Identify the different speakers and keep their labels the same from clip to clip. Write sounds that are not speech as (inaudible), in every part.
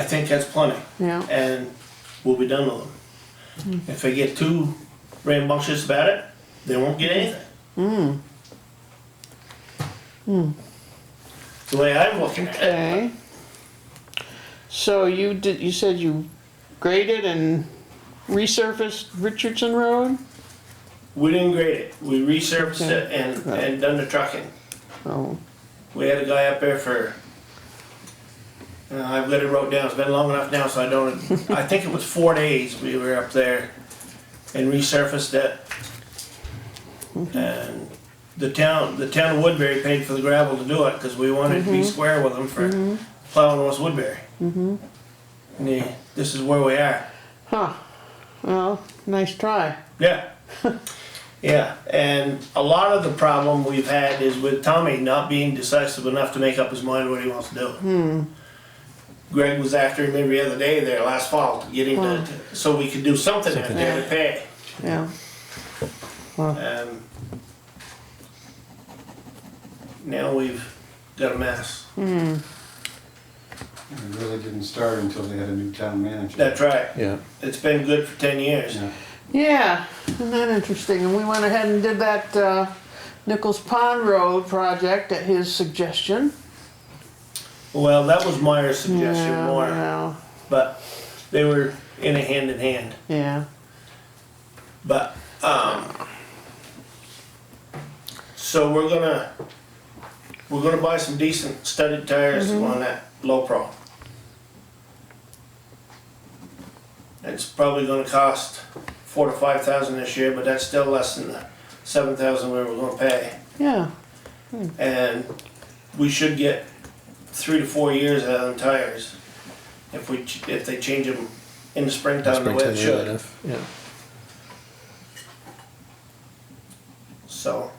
Speaker 1: I think that's plenty,
Speaker 2: Yeah,
Speaker 1: and we'll be done with them. If they get too rambunctious about it, they won't get anything. The way I'm looking at it.
Speaker 2: okay. So you did, you said you graded and resurfaced Richardson Road?
Speaker 1: We didn't grade it, we resurfaced
Speaker 2: Okay.
Speaker 1: it and, and done the trucking.
Speaker 2: Oh,
Speaker 1: We had a guy up there for, uh, I've got it wrote down, it's been long enough now, so I don't, (laughs) I think it was four days we were up there and resurfaced it. And the town, the town of Woodbury paid for the gravel to do it, cause we wanted to be square with them for plowing West Woodbury. And they- this is where we are.
Speaker 2: huh, well, nice try.
Speaker 1: Yeah. (laughs) Yeah, and a lot of the problem we've had is with Tommy not being decisive enough to make up his mind what he wants to do.
Speaker 2: Hmm.
Speaker 1: Greg was after him every other day there last fall, getting to, so we could do something out there to pay.
Speaker 2: Yeah,
Speaker 1: Um, Now we've got a mess.
Speaker 3: It really didn't start until they had a new town manager.
Speaker 1: That's right.
Speaker 4: Yeah,
Speaker 1: It's been good for ten years.
Speaker 3: Yeah.
Speaker 2: yeah, isn't that interesting? And we went ahead and did that, uh, Nichols Pond Road project at his suggestion.
Speaker 1: Well, that was Meyer's suggestion
Speaker 2: Yeah,
Speaker 1: more,
Speaker 2: well,
Speaker 1: but they were in a hand in hand.
Speaker 2: Yeah,
Speaker 1: But, um, so we're gonna, we're gonna buy some decent studded tires on that low pro. It's probably gonna cost four to five thousand this year, but that's still less than the seven thousand we were gonna pay.
Speaker 2: yeah,
Speaker 1: And we should get three to four years out of them tires if we, ch- if they change them in the springtime the way it
Speaker 4: Springton, yeah,
Speaker 1: should,
Speaker 4: enough, yeah.
Speaker 1: so.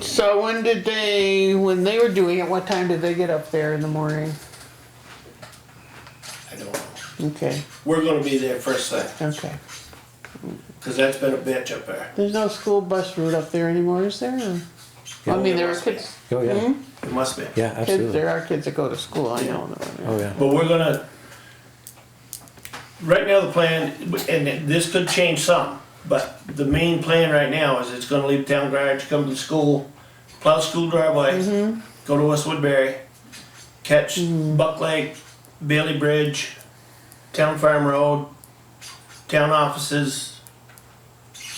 Speaker 2: so when did they, when they were doing it, what time did they get up there in the morning?
Speaker 1: I don't know.
Speaker 2: Okay,
Speaker 1: We're gonna be there first thing,
Speaker 2: okay.
Speaker 1: cause that's been a bitch up there.
Speaker 2: There's no school bus route up there anymore, is there? I mean, there are kids,
Speaker 4: Oh, yeah,
Speaker 1: It must be.
Speaker 4: yeah,
Speaker 2: kids,
Speaker 4: absolutely.
Speaker 2: there are kids that go to school, I know. that.
Speaker 4: Oh, yeah.
Speaker 1: But we're gonna, right now the plan, and this could change some, but the main plan right now is it's gonna leave town garage, come to the school, plow school driveway, go to West Woodbury, catch Buck Lake, Bailey Bridge, Town Farm Road, town offices,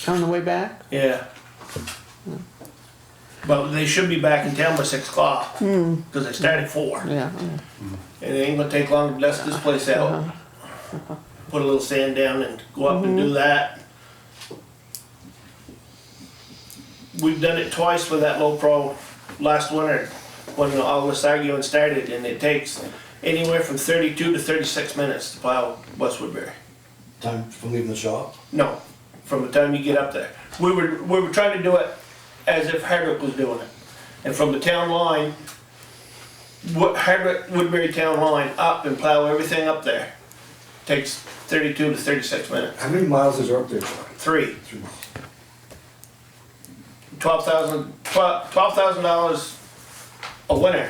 Speaker 2: On the way back?
Speaker 1: Yeah. But they should be back in town by six o'clock, because they start at four. And
Speaker 2: Yeah.
Speaker 1: it ain't gonna take long to dust this place out. Put a little sand down and go up and do that. We've done it twice with that low pro last winter, when all this arguing started, and it takes anywhere from thirty-two to thirty-six minutes to plow West Woodbury.
Speaker 5: Time from leaving the shop?
Speaker 1: No, from the time you get up there. We were, we were trying to do it as if Hardwick was doing it. And from the town line, Wo- Hardwick, Woodbury town line, up and plow everything up there. Takes thirty-two to thirty-six minutes.
Speaker 5: How many miles is there up there for?
Speaker 1: Three,
Speaker 5: Three miles.
Speaker 1: twelve thousand, twelve, twelve thousand dollars a winter.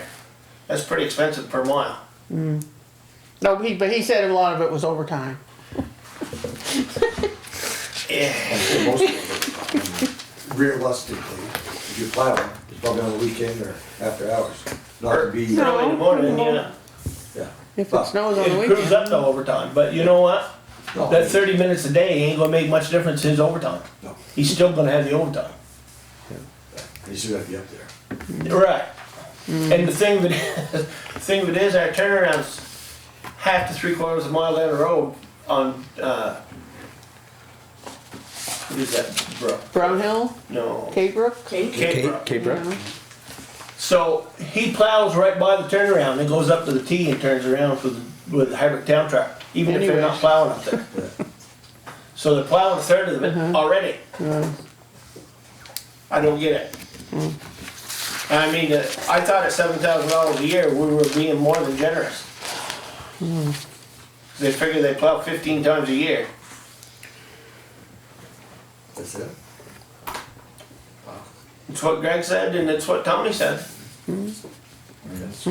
Speaker 1: That's pretty expensive per mile.
Speaker 2: No, he, but he said a lot of it was overtime.
Speaker 1: Yeah,
Speaker 5: Actually, most of it. Realistically, if you plow, it's probably on the weekend or after hours, not to be, yeah.
Speaker 1: early in the morning, yeah.
Speaker 2: If it snows on the
Speaker 1: It proves
Speaker 2: weekend.
Speaker 1: up to overtime, but you know what?
Speaker 5: No.
Speaker 1: That thirty minutes a day ain't gonna make much difference in his overtime.
Speaker 5: No,
Speaker 1: He's still gonna have the overtime.
Speaker 5: you still gotta be up there.
Speaker 1: Right. And the thing that (laughs) the thing of it is, our turnaround's half to three quarters of a mile down the road on uh, what is that brook?
Speaker 2: Brown Hill,
Speaker 1: No, Cape,
Speaker 2: Cape Brook?
Speaker 1: Brook.
Speaker 4: Cape Brook?
Speaker 1: So he plows right by the turnaround and goes up to the T and turns around with with the hybrid town truck, even if they're not
Speaker 2: Anyway.
Speaker 1: plowing up there. so they're plowing a third of it already. I don't get it. I mean, uh, I thought at seven thousand dollars a year, we were being more than generous. They figure they plow fifteen times a year.
Speaker 5: That's it?
Speaker 1: It's what Greg said, and it's what Tommy said.
Speaker 2: That's